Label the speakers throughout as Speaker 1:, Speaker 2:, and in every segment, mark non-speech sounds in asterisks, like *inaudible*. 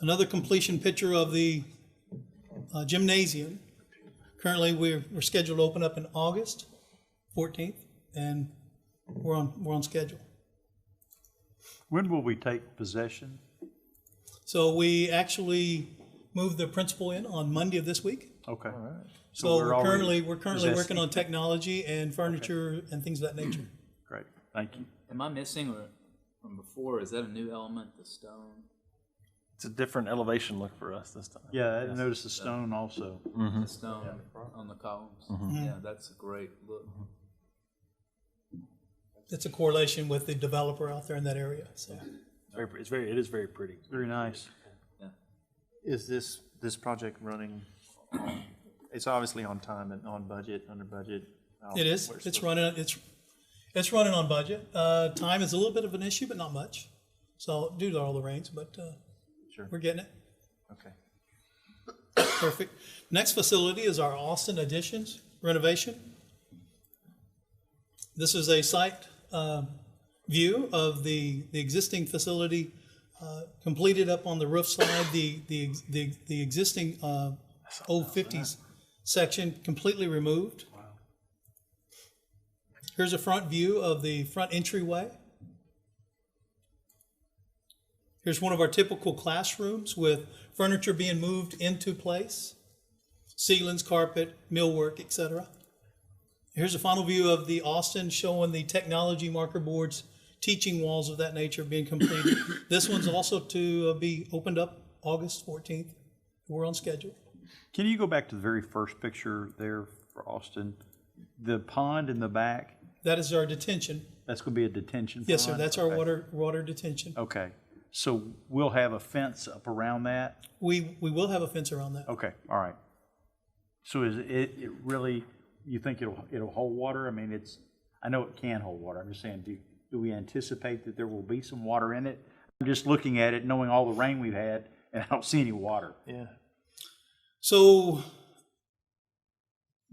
Speaker 1: another completion picture of the uh, gymnasium. Currently, we're, we're scheduled to open up in August 14th, and we're on, we're on schedule.
Speaker 2: When will we take possession?
Speaker 1: So we actually moved the principal in on Monday of this week.
Speaker 2: Okay.
Speaker 1: So
Speaker 2: we're
Speaker 1: we're
Speaker 2: already
Speaker 1: currently, we're currently working
Speaker 2: possessing.
Speaker 1: on technology and furniture and things of that nature.
Speaker 2: Great, thank you.
Speaker 3: Am I missing or from before? Is that a new element, the stone?
Speaker 4: It's a different elevation look for us this time.
Speaker 2: Yeah, I noticed the stone also.
Speaker 3: The stone on the columns. Yeah, that's a great look.
Speaker 1: It's a correlation with the developer out there in that area, so.
Speaker 4: It's very, it's very, it is very pretty.
Speaker 2: Very nice.
Speaker 5: Is this, this project running, it's obviously on time and on budget, under budget? Um,
Speaker 1: It is,
Speaker 5: where's
Speaker 1: it's
Speaker 5: the-
Speaker 1: running, it's, it's running on budget. Uh, time is a little bit of an issue, but not much. So due to all the rains, but, uh,
Speaker 5: Sure.
Speaker 1: we're getting it.
Speaker 5: Okay.
Speaker 1: Perfect. Next facility is our Austin additions renovation. This is a site um, view of the, the existing facility uh, completed up on the roof side, the, the, the, the existing uh, old fifties section completely removed. Here's a front view of the front entryway. Here's one of our typical classrooms with furniture being moved into place, ceilings, carpet, millwork, etc. Here's a final view of the Austin showing the technology marker boards, teaching walls of that nature being completed. *coughs* this one's also to uh, be opened up August 14th. We're on schedule.
Speaker 2: Can you go back to the very first picture there for Austin? The pond in the back,
Speaker 1: That is our detention.
Speaker 2: that's gonna be a detention pond?
Speaker 1: Yes, sir. That's our
Speaker 2: Okay. Oh.
Speaker 1: water water detention.
Speaker 2: Okay, so we'll have a fence up around that?
Speaker 1: We we will have a fence around that.
Speaker 2: Okay, all right. So is it, it really, you think it'll, it'll hold water? I mean, it's, I know it can hold water, I'm just saying, do, do we anticipate that there will be some water in it? I'm just looking at it, knowing all the rain we've had, *laughs* and I don't see any water.
Speaker 5: Yeah.
Speaker 1: So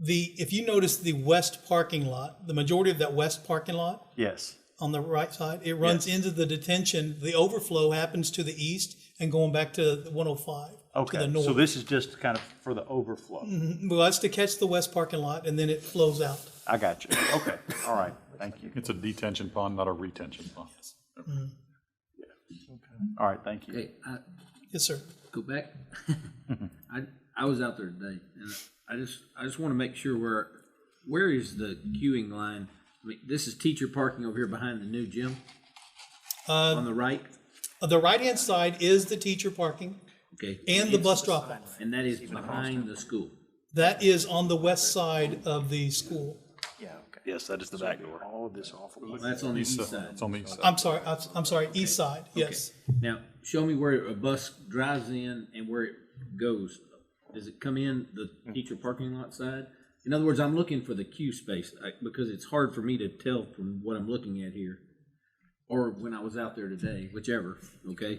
Speaker 1: the if you notice the west parking lot, the majority of that west parking lot
Speaker 2: Yes,
Speaker 1: on the right side, it runs into the detention. The overflow happens to the east and going back to the 105 to the
Speaker 2: okay,
Speaker 1: north. Mm-hmm.
Speaker 2: so this is just kind of for the overflow.
Speaker 1: well, that's to catch the west parking lot and then it flows out.
Speaker 2: I got you, okay, all right, thank you.
Speaker 6: It's a detention pond, not a retention pond.
Speaker 1: Mm-hmm.
Speaker 2: All right, thank you.
Speaker 7: Hey, I,
Speaker 1: Yes, sir.
Speaker 7: go back. *laughs* I, I was out there today, and I just, I just want to make sure where, where is the queuing line? I mean, this is teacher parking over here behind the new gym? On the right?
Speaker 1: Uh, The right hand side is the teacher parking
Speaker 7: Okay.
Speaker 1: and the bus drop off.
Speaker 7: And that is behind the school.
Speaker 1: That is on the west side of the school.
Speaker 5: Yeah, okay.
Speaker 4: Yes, that is the back door.
Speaker 5: All of this awful.
Speaker 7: That's on the
Speaker 6: East
Speaker 7: east
Speaker 6: side.
Speaker 7: side.
Speaker 6: It's on the east side.
Speaker 1: I'm sorry, I'm, I'm sorry, east side. Yes.
Speaker 7: Now, show me where a bus drives in and where it goes. Does it come in the teacher parking lot side? In other words, I'm looking for the queue space I- because it's hard for me to tell from what I'm looking at here or when I was out there today, whichever, okay?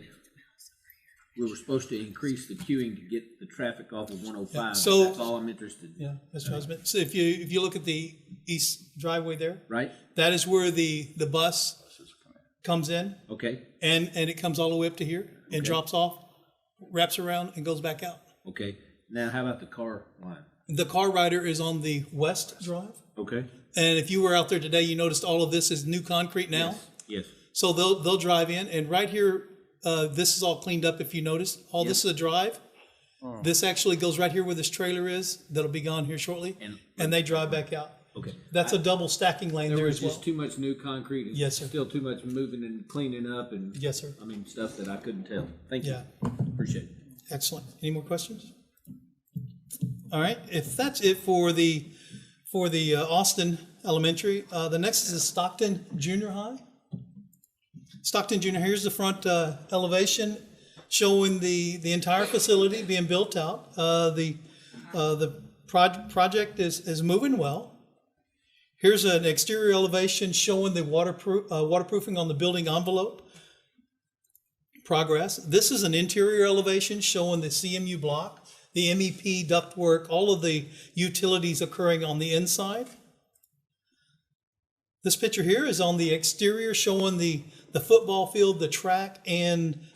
Speaker 7: We were supposed to increase the queuing to get the traffic off of 105.
Speaker 1: so-
Speaker 7: That's all I'm interested in,
Speaker 1: Yeah, Mr. Husband. So if you, if you look at the east driveway there,
Speaker 7: right?
Speaker 1: that is where the, the bus comes in
Speaker 7: Okay,
Speaker 1: and, and it comes all the way up to here and drops off, wraps around and goes back out.
Speaker 7: okay. Now, how about the car line?
Speaker 1: The car rider is on the west drive.
Speaker 7: Okay,
Speaker 1: And if you were out there today, you noticed all of this is new concrete now.
Speaker 7: yes,
Speaker 1: So they'll, they'll drive in and right here, uh, this is all cleaned up if you noticed. All this is a drive.
Speaker 7: Oh.
Speaker 1: This actually goes right here where this trailer is. That'll be gone here shortly.
Speaker 7: And-
Speaker 1: And they drive back out.
Speaker 7: okay.
Speaker 1: That's a double stacking lane
Speaker 7: There
Speaker 1: there
Speaker 7: was
Speaker 1: as well.
Speaker 7: just too much new concrete. and
Speaker 1: Yes, sir.
Speaker 7: Still too much moving and cleaning up and.
Speaker 1: Yes, sir.
Speaker 7: I mean, stuff that I couldn't tell. Thank you.
Speaker 1: Yeah.
Speaker 7: Appreciate it.
Speaker 1: Excellent. Any more questions? All right, if that's it for the, for the uh, Austin Elementary, uh, the next is Stockton Junior High. Stockton Junior, here's the front, uh, elevation showing the, the entire facility being built out. Uh, the, uh, the proj- project is, is moving well. Here's an exterior elevation showing the waterproof, uh, waterproofing on the building envelope progress. This is an interior elevation showing the CMU block, the MEP ductwork, all of the utilities occurring on the inside. This picture here is on the exterior showing the, the football field, the track, and